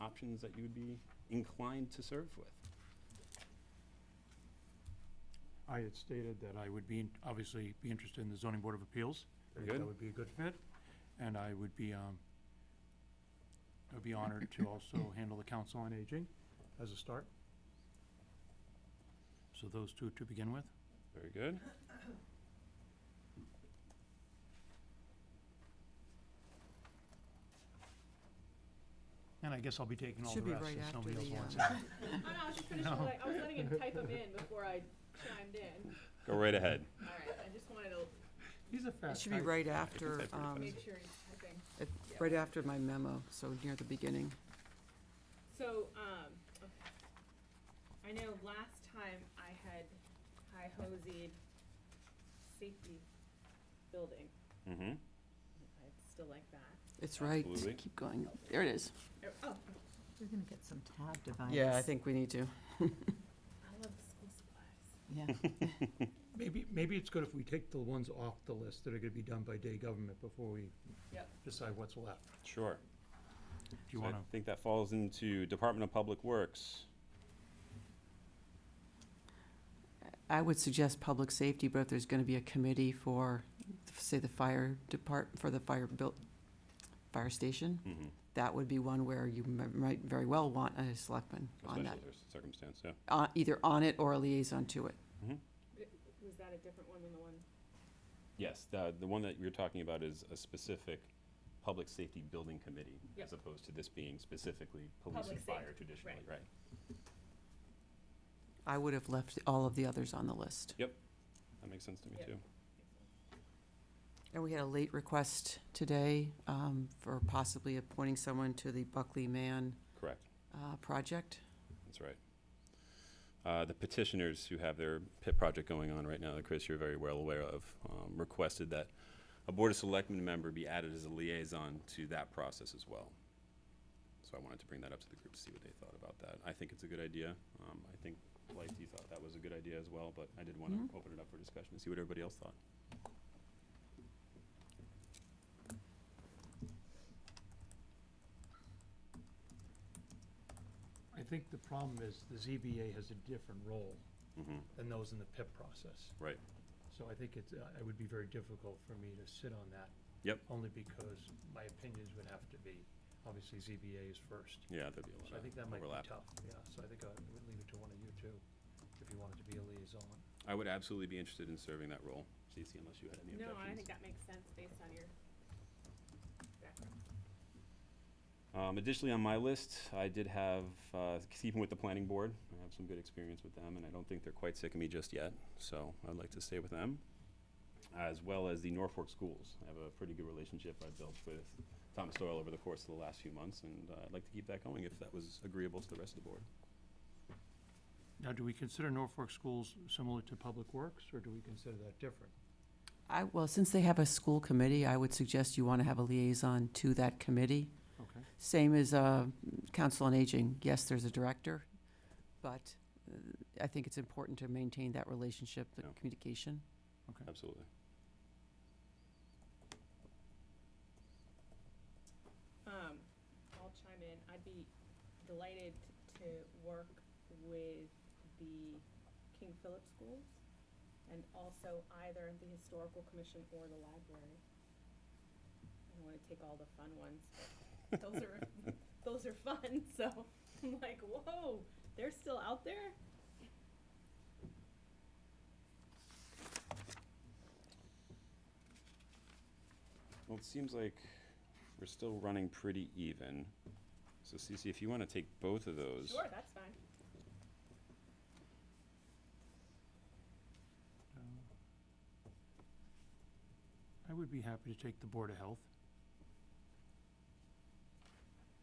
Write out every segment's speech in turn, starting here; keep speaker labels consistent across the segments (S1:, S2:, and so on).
S1: options that you would be inclined to serve with.
S2: I had stated that I would be, in- obviously, be interested in the zoning board of appeals. I think
S1: Good.
S2: That would be a good fit, and I would be, um, I would be honored to also handle the council on aging as a start. So those two to begin with.
S1: Very good.
S2: And I guess I'll be taking all the
S3: Should be
S2: rest,
S3: right
S2: since
S3: after
S2: nobody else
S3: the,
S2: wants it.
S3: uh,
S4: I know, I was just finishing, like, I was letting him type them in before I chimed in.
S1: Go right ahead.
S4: All right, I just wanted to
S2: He's a
S3: It
S2: fast
S3: should be right after,
S1: that's pretty
S3: um,
S4: make sure he's typing.
S3: it- right after my memo, so near the beginning.
S4: So, um, I know last time I had high hosied safety building.
S1: Mm-hmm.
S4: I'd still like that.
S3: It's right,
S1: Absolutely.
S3: keep going. There it is.
S4: Oh,
S5: We're gonna get some tab dividers.
S3: Yeah, I think we need to.
S4: I love the school supplies.
S5: Yeah,
S2: Maybe, maybe it's good if we take the ones off the list that are gonna be done by day government before we
S4: Yep.
S2: decide what's left.
S1: Sure.
S2: Do you
S1: So I
S2: wanna,
S1: think that falls into Department of Public Works.
S3: I would suggest public safety, but if there's going to be a committee for, say, the fire depart, for the fire built, fire station,
S1: Mm-hmm.
S3: that would be one where you m- might very well want a selectman on that,
S1: Especially cir- circumstance, yeah.
S3: uh, either on it or a liaison to it.
S4: Was that a different one than the one?
S1: Yes, the, the one that you're talking about is a specific public safety building committee,
S4: Yep.
S1: as opposed to this being specifically police
S4: Public
S1: and fire
S4: safety,
S1: traditionally,
S4: right.
S1: right?
S3: I would have left all of the others on the list.
S1: Yep, that makes sense to me
S4: Yep.
S1: too.
S3: And we had a late request today um, for possibly appointing someone to the Buckley Man
S1: Correct,
S3: uh, project.
S1: that's right. Uh, the petitioners who have their pit project going on right now, that Chris, you're very well aware of, um, requested that a Board of Selectmen member be added as a liaison to that process as well. So I wanted to bring that up to the group, to see what they thought about that. I think it's a good idea. Um, I think Lighty thought that was a good idea as well, but I did want
S4: Mm-hmm.
S1: to open it up for discussion and see what everybody else thought.
S2: I think the problem is the ZBA has a different role
S1: Mm-hmm.
S2: than those in the PIP process.
S1: Right.
S2: So I think it's, uh, it would be very difficult for me to sit on that,
S1: Yep.
S2: only because my opinions would have to be, obviously ZBA is first.
S1: Yeah, there'd be a lot of
S2: So I think that might
S1: overlap.
S2: be tough, yeah, so I think I would leave it to one of you two, if you wanted to be a liaison.
S1: I would absolutely be interested in serving that role, Cece, unless you had any objections.
S4: No, I think that makes sense based on your background.
S1: Um, additionally, on my list, I did have, uh, keeping with the planning board, I have some good experience with them, and I don't think they're quite sick of me just yet, so I'd like to stay with them. As well as the Norfolk schools. I have a pretty good relationship I built with Thomas Doyle over the course of the last few months, and uh, I'd like to keep that going if that was agreeable to the rest of the board.
S2: Now, do we consider Norfolk schools similar to Public Works, or do we consider that different?
S3: I, well, since they have a school committee, I would suggest you want to have a liaison to that committee.
S2: Okay.
S3: Same as uh, Council on Aging. Yes, there's a director, but uh, I think it's important to maintain that relationship, the
S1: Yeah.
S3: communication.
S2: Okay.
S1: Absolutely.
S4: Um, I'll chime in. I'd be delighted to work with the King Philip Schools and also either the Historical Commission or the library. I don't wanna take all the fun ones, but those are, those are fun, so I'm like, whoa, they're still out there?
S1: Well, it seems like we're still running pretty even. So Cece, if you want to take both of those.
S4: Sure, that's fine.
S2: I would be happy to take the Board of Health.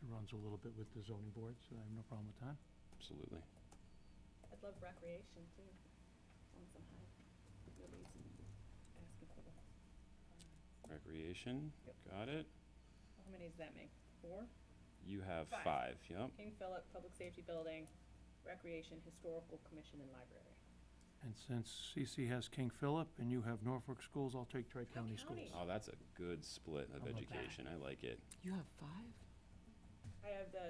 S2: It runs a little bit with the zoning board, so I have no problem with that.
S1: Absolutely.
S4: I'd love recreation too, on some high, nobody's asking for that.
S1: Recreation,
S4: Yep.
S1: got it.
S4: How many does that make? Four?
S1: You have
S4: Five.
S1: five, yep.
S4: King Philip Public Safety Building, Recreation, Historical Commission, and Library.
S2: And since CC has King Philip and you have Norfolk Schools, I'll take Tri-County
S4: Tri-County.
S2: Schools.
S1: Oh, that's a good split of
S2: How about that?
S1: education. I like it.
S3: You have five?
S4: I have the